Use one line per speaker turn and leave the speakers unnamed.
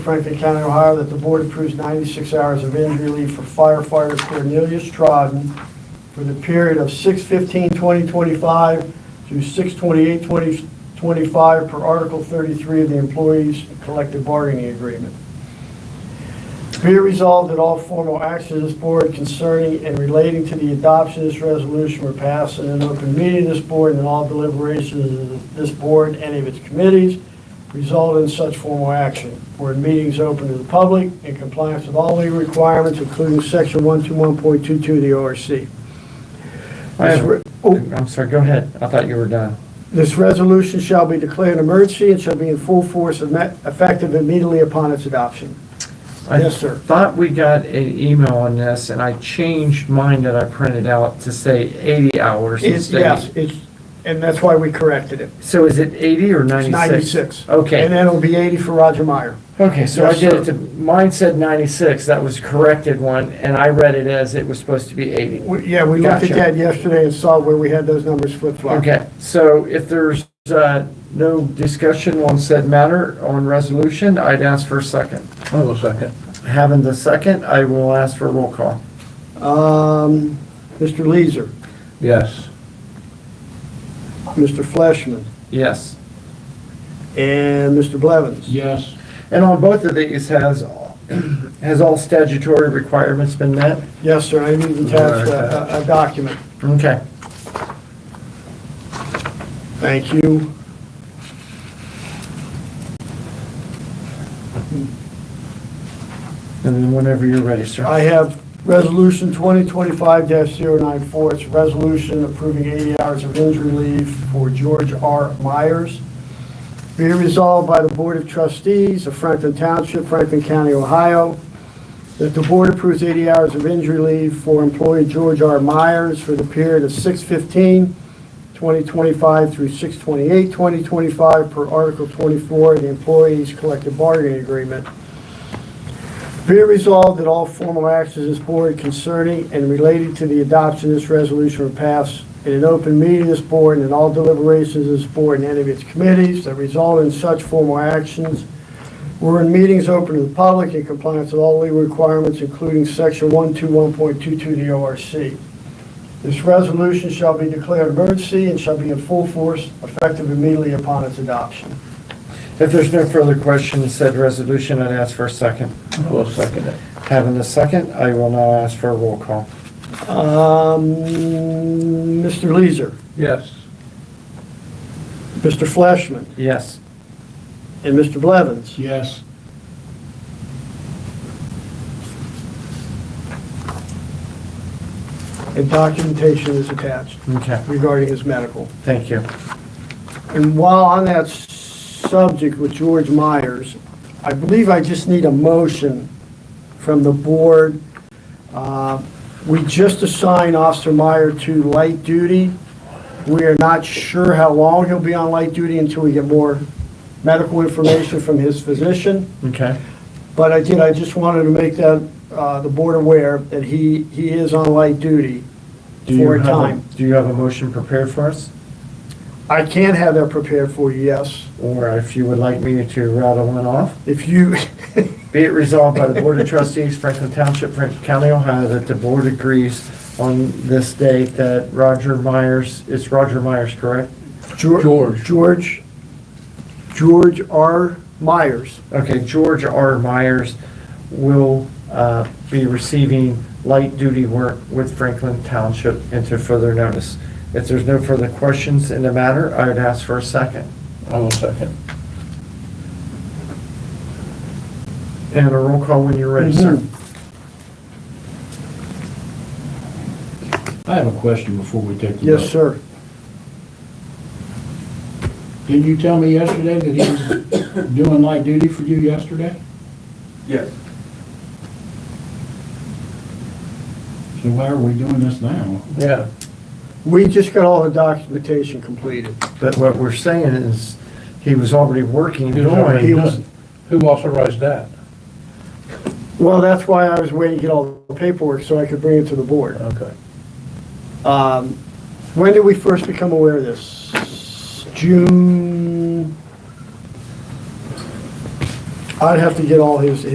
Franklin County, Ohio, that the board approves 96 hours of injury leave for firefighter Cornelius Trodden for the period of 6/15/2025 through 6/28/2025 per Article 33 of the Employees Collective Bargaining Agreement. Be it resolved that all formal actions of this board concerning and relating to the adoption of this resolution were passed in an open meeting of this board and all deliberations of this board and any of its committees result in such formal action. Were meetings open to the public in compliance with all legal requirements, including section 121.22 of the ORC.
I
This
have-
re- oh,
I'm sorry, go ahead. I thought you were done.
This resolution shall be declared an emergency and shall be in full force and met- effective immediately upon its adoption. Yes, sir.
I thought we got an email on this, and I changed mine that I printed out to say 80 hours
It's,
instead.
yes,
of-
it's, and that's why we corrected it.
So is it 80 or 96?
It's 96. And
Okay,
then it'll be 80 for Roger Meyer.
okay, so I
Yes,
did it
sir.
to, mine said 96, that was corrected one, and I read it as it was supposed to be 80.
We- Yeah, we looked at
Gotcha.
that yesterday and saw where we had those numbers flip-flopped.
Okay, so if there's uh, no discussion on said matter on resolution, I'd ask for a second.
I will second.
Having the second, I will ask for a roll call.
Um, Mr. Leeser,
Yes.
Mr. Fleshman,
Yes.
and Mr. Blevins.
Yes.
And on both of these, has, has all statutory requirements been met?
Yes, sir, I need to attach a- a a document.
Okay.
Thank you.
And then whenever you're ready, sir.
I have Resolution 2025-094. It's a resolution approving 80 hours of injury leave for George R. Myers. Be it resolved by the Board of Trustees of Franklin Township, Franklin County, Ohio, that the board approves 80 hours of injury leave for employee George R. Myers for the period of 6/15/2025 through 6/28/2025 per Article 24 of the Employees Collective Bargaining Agreement. Be it resolved that all formal actions of this board concerning and related to the adoption of this resolution were passed in an open meeting of this board and in all deliberations of this board and any of its committees that result in such formal actions were in meetings open to the public in compliance with all legal requirements, including section 121.22 of the ORC. This resolution shall be declared emergency and shall be in full force effective immediately upon its adoption.
If there's no further question, said resolution, I'd ask for a second.
I will second it.
Having the second, I will now ask for a roll call.
Um, Mr. Um, Leeser,
Yes.
Mr. Fleshman,
Yes.
And Mr. Blevins?
Yes.
And documentation is attached
Okay,
regarding his medical.
thank you.
And while on that s- subject with George Myers, I believe I just need a motion from the board. Uh, We just assigned Officer Meyer to light duty. We are not sure how long he'll be on light duty until we get more medical information from his physician.
Okay.
But I did, I just wanted to make that, uh, the board aware that he, he is on light duty
Do you
for a
have
time.
Do you have a motion prepared for us?
I can have that prepared for you, yes.
Or if you would like me to rattle one off?
If you,
Be it resolved by the Board of Trustees, Franklin Township, Franklin County, Ohio, that the board agrees on this date that Roger Myers, it's Roger Myers, correct?
George,
George.
George, George R. Myers,
Okay, George R. Myers will uh, be receiving light duty work with Franklin Township into further notice. If there's no further questions in the matter, I would ask for a second
I will second.
and a roll call when you're ready, sir.
Mhm.
Mm-hmm.
I have a question before we take the vote.
yes, sir.
Did you tell me yesterday that he was doing light duty for you yesterday?
Yes,
So why are we doing this now?
Yeah.
We just got all the documentation completed.
But what we're saying is, he was already working,
He was already
doing,
was-
done. Who authorized that?
Well, that's why I was waiting to get all the paperwork so I could bring it to the board.
Okay.
Um, When did we first become aware of this? June, I'd have to get all his,